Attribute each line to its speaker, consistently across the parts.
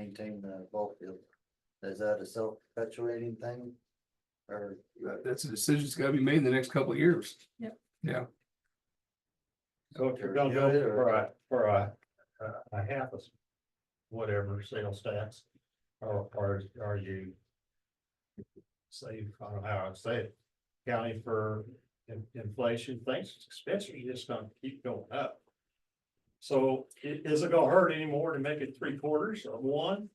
Speaker 1: maintain the ball field. Is that a self-perpetuating thing? Or?
Speaker 2: That- That's a decision that's gotta be made in the next couple of years.
Speaker 3: So if you're gonna go for a, for a, a- a half of s- whatever sales tax, or, or are you save, I don't know how I'd say it, county for in- inflation, things, expenses are just gonna keep going up. So i- is it gonna hurt anymore to make it three quarters of one?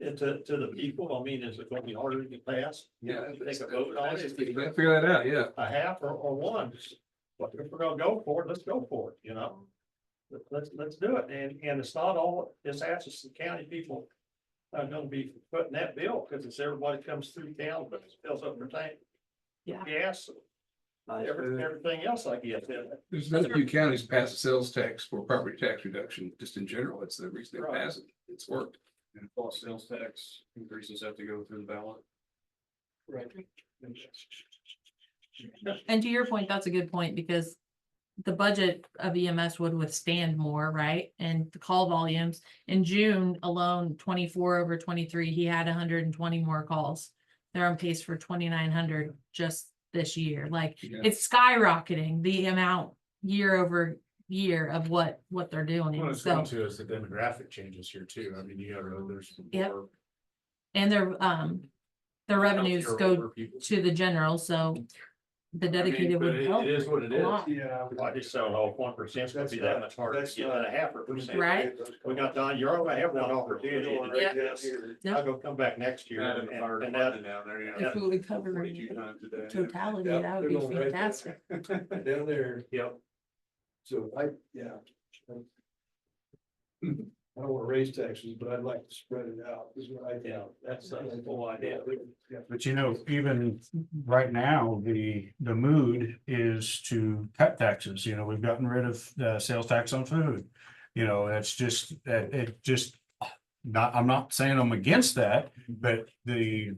Speaker 3: And to, to the people, I mean, is it gonna be harder to pass? Take a vote on it?
Speaker 2: Figure that out, yeah.
Speaker 3: a half or, or one, just, look, if we're gonna go for it, let's go for it, you know? Let- Let's, let's do it, and, and it's not all, it's Atchison County people are gonna be putting that bill, because it's everybody comes through town, but it fills up their tank.
Speaker 4: Yeah.
Speaker 3: Gas, every- everything else, I guess, and-
Speaker 2: There's been a few counties pass a sales tax for property tax reduction, just in general. It's the reason they
Speaker 3: Right.
Speaker 2: pass it. It's worked.
Speaker 5: And all sales tax increases have to go through the ballot.
Speaker 4: And to your point, that's a good point because the budget of EMS would withstand more, right? And the call volumes in June alone, twenty-four over twenty-three, he had hundred and twenty more calls. They're on pace for twenty-nine hundred just this year. Like
Speaker 2: Yeah.
Speaker 4: it's skyrocketing the amount year over year of what, what they're
Speaker 5: What
Speaker 4: doing.
Speaker 5: it's
Speaker 4: So,
Speaker 5: going to is the demographic changes here too. I mean, you have, there's.
Speaker 4: Yep.
Speaker 5: more
Speaker 4: and their, um, their revenues
Speaker 5: healthier
Speaker 4: go
Speaker 5: older people.
Speaker 4: to the general, so the
Speaker 5: I mean,
Speaker 4: dedicated
Speaker 5: but
Speaker 4: would
Speaker 5: it-
Speaker 4: help.
Speaker 5: It is what it
Speaker 4: a
Speaker 5: is.
Speaker 4: lot.
Speaker 1: Yeah.
Speaker 3: I just don't know if one percent's gonna be that much harder to get than a half a percent.
Speaker 4: Right.
Speaker 3: We got, Don, you're gonna have one opportunity to do
Speaker 4: Yeah.
Speaker 3: this, I'll go come back next year,
Speaker 5: You're in
Speaker 3: and,
Speaker 5: the fire
Speaker 3: and that,
Speaker 5: department down there, you
Speaker 4: If
Speaker 5: know,
Speaker 4: we would cover it
Speaker 5: 42
Speaker 4: in
Speaker 5: times a day.
Speaker 4: totality, that would be fantastic.
Speaker 1: Down there,
Speaker 3: you know,
Speaker 1: so I, yeah. I don't wanna raise taxes, but I'd like to spread it out, is what I
Speaker 3: Yeah, that's the whole idea.
Speaker 6: But you know, even right now, the, the mood is to cut taxes, you know, we've gotten rid of the sales tax on food. You know, that's just, that it just, not, I'm not saying I'm against that, but the.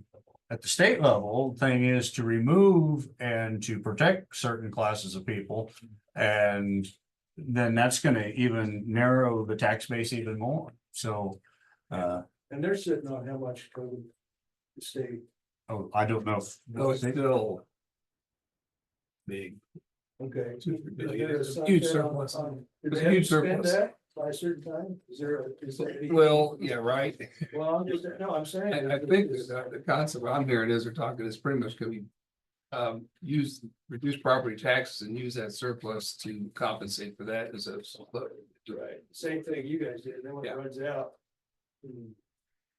Speaker 6: At the state level, thing is to remove and to protect certain classes of people. And then that's gonna even narrow the tax base even more, so. Uh,
Speaker 1: And they're sitting on how much COVID the state
Speaker 6: oh, I don't know. if-
Speaker 2: No, it's still. Big.
Speaker 1: Okay.
Speaker 2: Two, three billion.
Speaker 1: Is there a
Speaker 2: Huge
Speaker 1: sunset on-
Speaker 2: surplus.
Speaker 1: on- do
Speaker 2: It's
Speaker 1: they
Speaker 2: a
Speaker 1: have
Speaker 2: huge
Speaker 1: to spend
Speaker 2: surplus.
Speaker 1: that By a certain time, is there a- is there any?
Speaker 2: Well, yeah, right.
Speaker 1: Well, I'm just, no, I'm saying.
Speaker 2: I, I think the, the concept I'm hearing is they're talking is pretty much can we um, use, reduce property taxes and use that surplus to compensate for that as a.
Speaker 1: Right, same thing you guys did, then when it
Speaker 2: Yeah.
Speaker 1: runs out. hmm,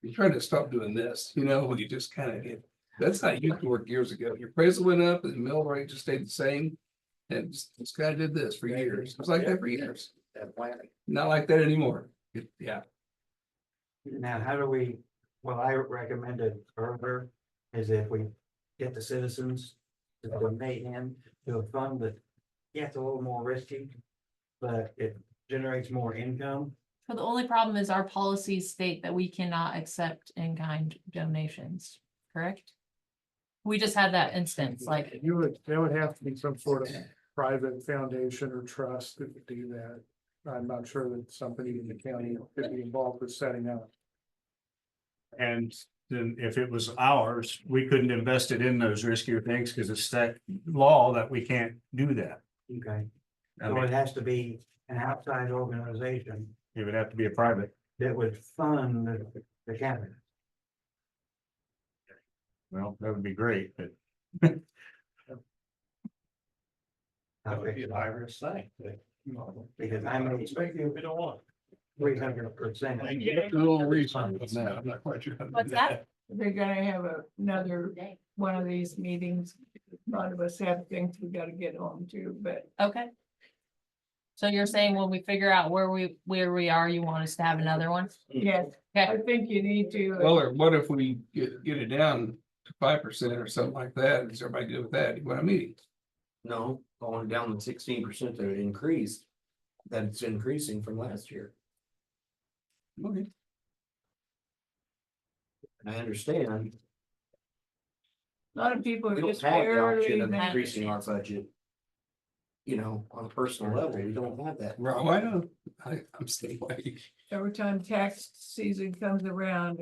Speaker 2: You're trying to stop doing this, you know, when you just kind of get, that's how you used to work years ago. Your appraisal went up and the mill rate just stayed the same. And just, just kind of did this for years. It was like that for years.
Speaker 1: That plan.
Speaker 2: Not like that anymore. It- Yeah.
Speaker 7: Now, how do we, what I recommended earlier is if we get the citizens to donate in to a fund that, yeah, it's a little more risky, but it generates more income.
Speaker 4: But the only problem is our policies state that we cannot accept in-kind donations, correct? We just had that instance, like,
Speaker 8: You would, there would have to be some sort of private foundation or trust that would do that. I'm not sure that somebody in the county could be involved with setting up.
Speaker 6: And then if it was ours, we couldn't invest it in those riskier things because it's that law that we can't do that.
Speaker 7: Okay,
Speaker 6: I
Speaker 7: so
Speaker 6: mean,
Speaker 7: it has to be an outside organization
Speaker 6: it would have to be a private.
Speaker 7: that would fund the- the cabinet.
Speaker 6: Well, that would be great, but
Speaker 3: that would be an Irish thing.
Speaker 7: Because I made
Speaker 3: We don't want.
Speaker 7: three hundred percent.
Speaker 2: There's a little reason on that. I'm not quite sure. how to do
Speaker 9: What's that? They're gonna have a- another one of these meetings. A lot of us have things we gotta get on to, but
Speaker 4: okay. So you're saying when we figure out where we, where we are, you want us to have another one?
Speaker 9: yes, I think you need to.
Speaker 2: Well, or what if we get, get it down to five percent or something like that? Is everybody good with that? You know What I mean?
Speaker 5: No, going down the sixteen percent that it increased, that it's increasing from last year.
Speaker 2: Okay.
Speaker 5: I understand.
Speaker 9: A lot of people
Speaker 5: We
Speaker 9: are
Speaker 5: don't have
Speaker 9: just
Speaker 5: the
Speaker 9: barely.
Speaker 5: option of
Speaker 4: that.
Speaker 5: increasing our budget. You know, on a personal level, we don't have that.
Speaker 2: Right, well, I know, I, I'm staying away.
Speaker 9: every time tax season comes around,